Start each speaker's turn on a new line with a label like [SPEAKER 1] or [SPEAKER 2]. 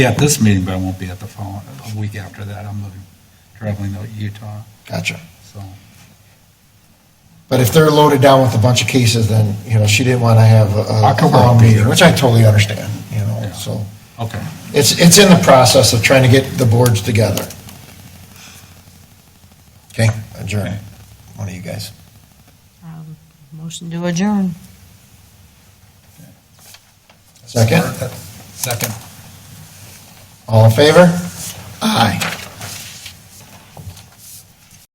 [SPEAKER 1] be at this meeting, but I won't be at the following, a week after that. I'm moving, traveling to Utah,
[SPEAKER 2] Gotcha.
[SPEAKER 1] so.
[SPEAKER 2] But if they're loaded down with a bunch of cases, then, you know, she didn't want to have
[SPEAKER 1] I
[SPEAKER 2] a- a
[SPEAKER 1] could work
[SPEAKER 2] long
[SPEAKER 1] with
[SPEAKER 2] meeting,
[SPEAKER 1] her.
[SPEAKER 2] which I totally understand, you know,
[SPEAKER 1] Yeah.
[SPEAKER 2] so.
[SPEAKER 1] Okay,
[SPEAKER 2] It's, it's in the process of trying to get the boards together. Okay, adjourn. One of you guys.
[SPEAKER 3] Um, Motion to adjourn.
[SPEAKER 2] Second,
[SPEAKER 1] second.
[SPEAKER 2] all in favor? Aye.